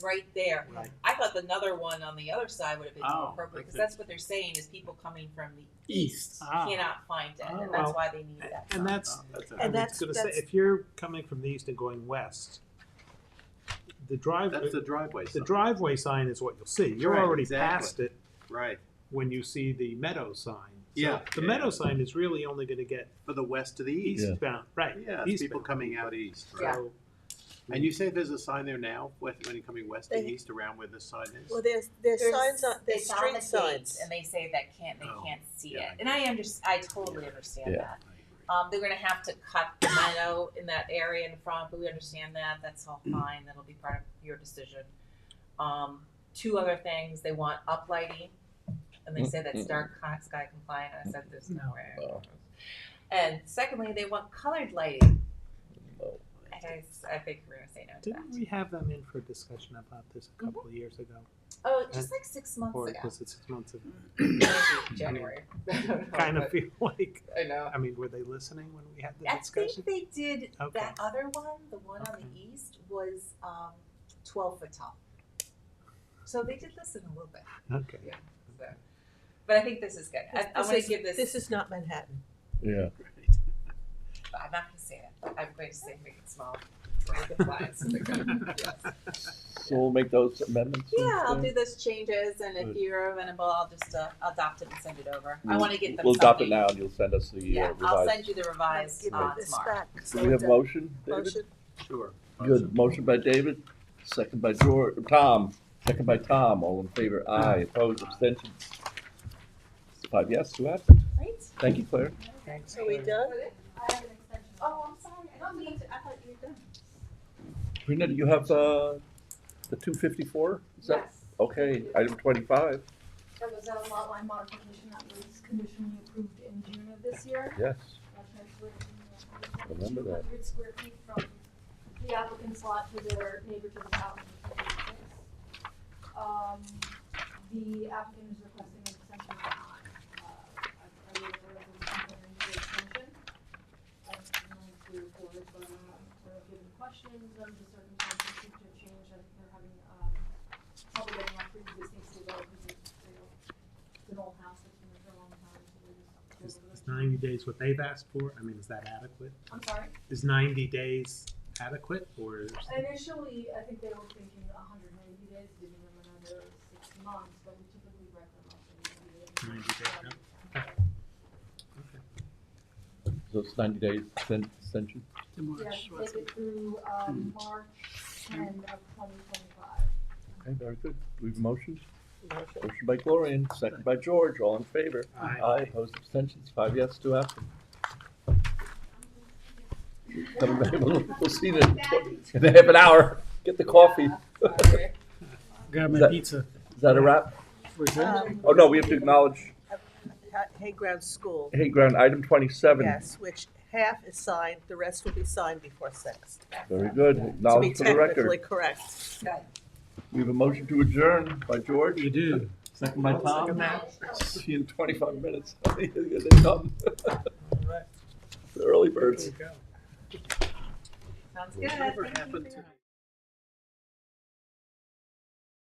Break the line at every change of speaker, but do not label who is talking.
right there.
Right.
I thought another one on the other side would have been more
Oh,
appropriate because
okay.
that's what they're saying is people coming from the
East.
Ah,
cannot find it,
Oh.
and that's why they need that.
And that's,
that's
I
a,
And
was
that's-
gonna say,
that's-
if you're coming from the east and going west, the drive,
that's the driveway.
the
sign.
driveway sign is what you'll see. You're
Right,
already
exactly.
past it
Right,
when you see the meadow sign. So
Yeah,
The
yeah,
meadow
yeah.
sign is really only gonna get
for the west to the east.
eastbound, right.
Yeah, it's people
eastbound.
coming out east. Right?
Yeah.
So-
And you say there's a sign there now, with, when you're coming west and
They-
east around where this sign is?
Well, there's, there's signs on, there's
it's on the
street
gates,
signs.
and they say that can't they
Oh,
can't see
yeah,
it. And I under, I totally understand
Yeah.
that.
I agree.
Um, they're gonna have to cut the meadow in that area in front, but we understand that, that's all fine, that'll be part of your decision. Um, two other things, they want uplighting, and they say that's dark co- sky compliant, and I said there's no way.
No.
And secondly, they want colored lighting,
No.
and I, s- I think we're gonna say no to
Didn't
that.
we have them in for a discussion about this
Mm-hmm.
a couple of years ago?
Oh, just like six months
Or
ago,
was it six months ago?
Mm-hmm.
maybe January. I don't know,
Kind of
but
feel like,
I know.
I mean, were they listening when we had the
I
discussion?
think they did,
Okay.
that other one, the one on
Okay.
the east, was um, 12 foot tall. So they did listen a little bit.
Okay.
So. But I think this is good. I, I
This
want
is-
to give this,
This is not Manhattan.
Yeah.
I'm not going to say it, but I'm going to say make it small. Make it wide so they go- yes.
So we'll make those amendments. and
Yeah, I'll
things?
do those changes, and if
Good.
you're amenable, I'll just uh, adopt it and send it over. I
We'll-
want to get them
We'll
something.
adopt it now and you'll send us the uh,
Yeah, I'll send
revised.
you the revised
Give
uh,
it this
tomorrow.
back.
Do we have a motion, David?
Motion.
Sure.
Good, motion by David, second by George, Tom, second by Tom, all in favor, aye, opposed, abstentions. Five yes, two absent,
Right?
thank you, Claire.
Thanks.
So we done?
I have an extension. Oh, I'm sorry, I don't mean to, I thought you were done.
Rena, do you have, uh, the two fifty-four? Is that
Yes.
Okay, item twenty-five,
That was a lot line modification that was conditionally approved in June of this year.
yes, Remember
Two
that.
hundred square feet from the applicant's lot to their neighbor to the south. which is the place. Um, the applicant is requesting an extension on, uh, a, a resolution for an extension. I don't know if we recorded, but, uh, sort of given questions of the circumstances, future change, that they're having, um, trouble getting off pre-existing city road, because it's, you know, it's an old house that's been there for a long time, so they're
Is
just.
is ninety days what they've asked for? I mean, is that adequate?
I'm sorry?
Is ninety days adequate or? is-
Initially, I think they were thinking hundred and eighty days, giving them another six months, but we typically write them up in ninety days.
90 days, yeah.
so it's ninety days exten- extension,
Yeah, take it through, um, March ten of twenty twenty-five.
okay, very good, we have motions,
Motion.
motion by Gloria, and second by George, all in favor,
Aye.
aye, opposed, abstentions, five yes, two absent. Come back, we'll, we'll see you in a half an hour, get the coffee,
Sorry.
Grab
That-
my pizza.
is that a wrap?
Um,
Oh, no, we have to acknowledge,
Ha- Hayground School,
hey, ground, item twenty-seven,
yes, which half is signed, the rest will be signed before six.
Very good,
To be
acknowledged for the
technically
record.
correct.
We have a motion to adjourn by George,
You do.
second by
Second
Tom.
that.
See you in twenty-five minutes. They come,
All right.
the early
There
birds.
we go.
Sounds good.
Whatever
Thank you
happened
for
to-
your-